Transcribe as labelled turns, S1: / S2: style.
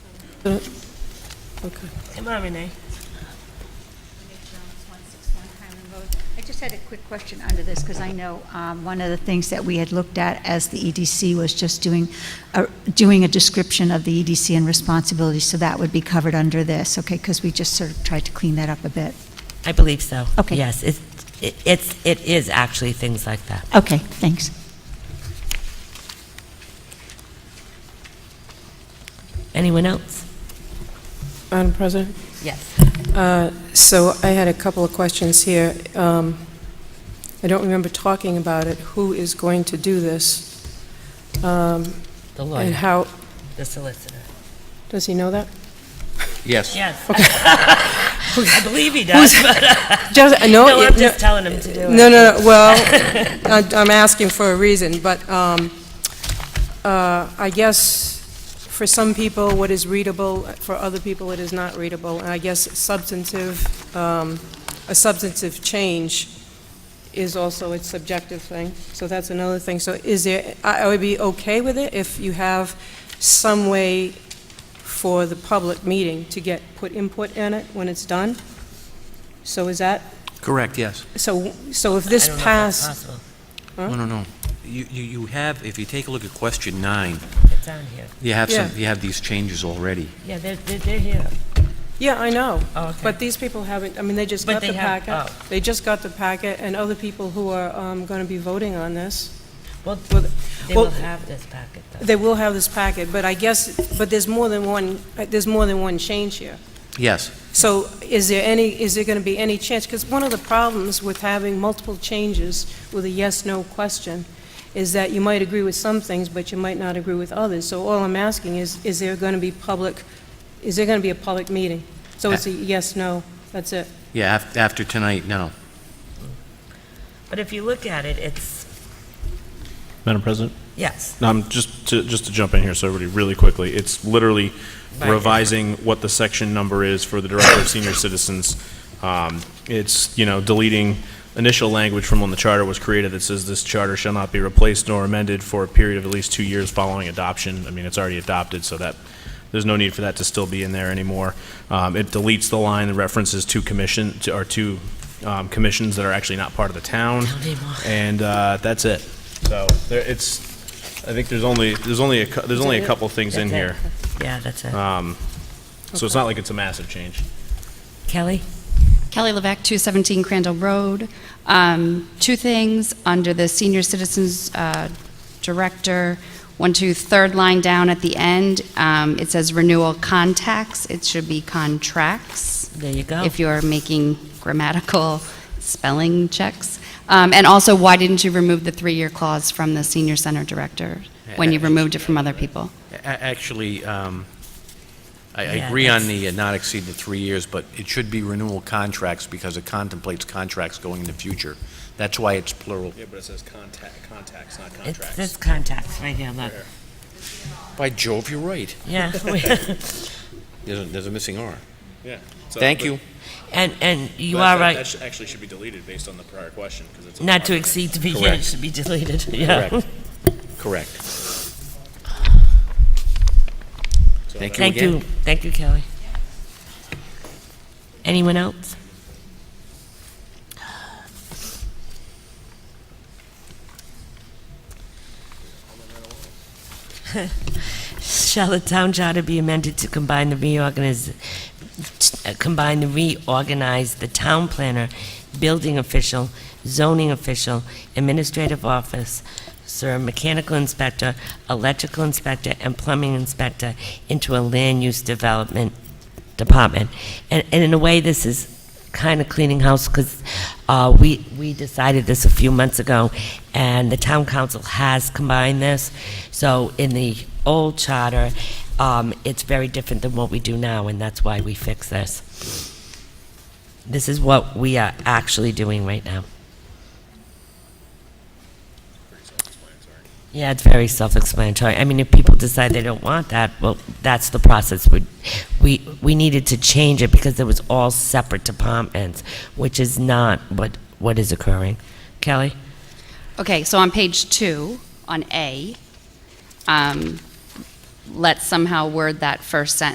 S1: Okay.
S2: Come on, Renee.
S3: Renee Jones, 161 Highland Road. I just had a quick question under this, because I know um, one of the things that we had looked at as the EDC was just doing, a- doing a description of the EDC and responsibilities, so that would be covered under this, okay? Because we just sort of tried to clean that up a bit.
S2: I believe so.
S3: Okay.
S2: Yes, it's, it- it's, it is actually things like that.
S3: Okay, thanks.
S2: Anyone else?
S1: Madam President?
S2: Yes.
S1: Uh, So I had a couple of questions here. Um, I don't remember talking about it. Who is going to do this? Um,
S2: The
S1: And
S2: lawyer,
S1: how,
S2: the solicitor.
S1: does he know that?
S4: Yes.
S2: Yes. I believe he does, but
S1: Just, no.
S2: no, I'm
S1: oh, no-
S2: just telling him to do it.
S1: No, no, no, well, I- I'm asking for a reason, but um, uh, I guess for some people, what is readable, for other people, it is not readable, and I guess substantive, um, a substantive change is also its subjective thing, so that's another thing. So is there, I I would be okay with it if you have some way for the public meeting to get, put input in it when it's done? So is that
S4: Correct, yes.
S1: so, so if
S2: I
S1: this
S2: don't know if that's
S1: passed,
S2: possible.
S4: No, no, no. You, you you have, if you take a look at question nine,
S2: It's on here.
S4: you have some,
S1: Yeah.
S4: you have these changes already.
S2: Yeah, they're, they're they're here.
S1: yeah, I know,
S2: Oh, okay.
S1: but these people haven't, I mean, they just
S2: But
S1: got
S2: they
S1: the
S2: have-
S1: packet. They just got the packet, and other people who are going to be voting on this,
S2: Well,
S1: well,
S2: they
S1: well-
S2: will have this packet, though.
S1: they will have this packet, but I guess, but there's more than one, uh, there's more than one change here.
S4: Yes,
S1: So is there any, is there going to be any chance? Because one of the problems with having multiple changes with a yes/no question is that you might agree with some things, but you might not agree with others. So all I'm asking is, is there going to be public, is there going to be a public meeting? So it's a yes/no, that's it.
S4: yeah, af- after tonight, no.
S2: But if you look at it, it's,
S5: Madam President,
S2: yes.
S5: no, I'm Um, just to, just to jump in here, so everybody, really quickly, it's literally
S2: Right.
S5: revising what the section number is for the Director of Senior Citizens. Um, It's, you know, deleting initial language from when the charter was created that says this charter shall not be replaced nor amended for a period of at least two years following adoption. I mean, it's already adopted, so that, there's no need for that to still be in there anymore. Um, It deletes the line that references two commission, to- or two um, commissions that are actually not part of the town.
S2: Don't need more.
S5: And uh, that's it. So there, it's, I think there's only, there's only, a cou- there's only a couple things in
S2: That's it.
S5: here.
S2: Yeah, that's it.
S5: Um, So it's not like it's a massive change.
S2: Kelly?
S6: Kelly Levesque, 217 Crandall Road. Um, Two things, under the Senior Citizens uh, Director, one, two, third line down at the end, um, it says renewal contacts, it should be contracts.
S2: There you go.
S6: If you're making grammatical spelling checks. Um, And also, why didn't you remove the three-year clause from the Senior Center Director when you removed it from other people?
S4: A- a- Actually, um, I I
S2: Yeah,
S4: agree on
S2: that's-
S4: the uh, not exceed the three years, but it should be renewal contracts because it contemplates contracts going in the future. That's why it's plural.
S5: Yeah, but it says contact, contacts, not
S2: It's this contacts right here, look.
S4: By Jove, you're right.
S2: Yeah.
S4: There's a, there's a missing R.
S5: Yeah.
S4: Thank you.
S2: And, and you are right,
S5: That actually should be deleted based on the prior question, because it's.
S2: not to exceed to be, yeah, it
S4: Correct.
S2: should be deleted, yeah.
S4: Correct. Correct. Thank you
S2: Thank
S4: again.
S2: you, thank you, Kelly. Anyone else? Shall the town charter be amended to combine the reorganiz, uh, combine the reorganize the town planner, building official, zoning official, administrative office, sir, mechanical inspector, electrical inspector, and plumbing inspector into a land use development department? And, and in a way, this is kind of cleaning house because uh, we, we decided this a few months ago, and the town council has combined this. So in the old charter, um, it's very different than what we do now, and that's why we fix this. This is what we are actually doing right now. Yeah, it's very self-explanatory. I mean, if people decide they don't want that, well, that's the process. We, we, we needed to change it because it was all separate departments, which is not what, what is occurring. Kelly?
S6: Okay, so on page two, on A, um, let's somehow word that first sentence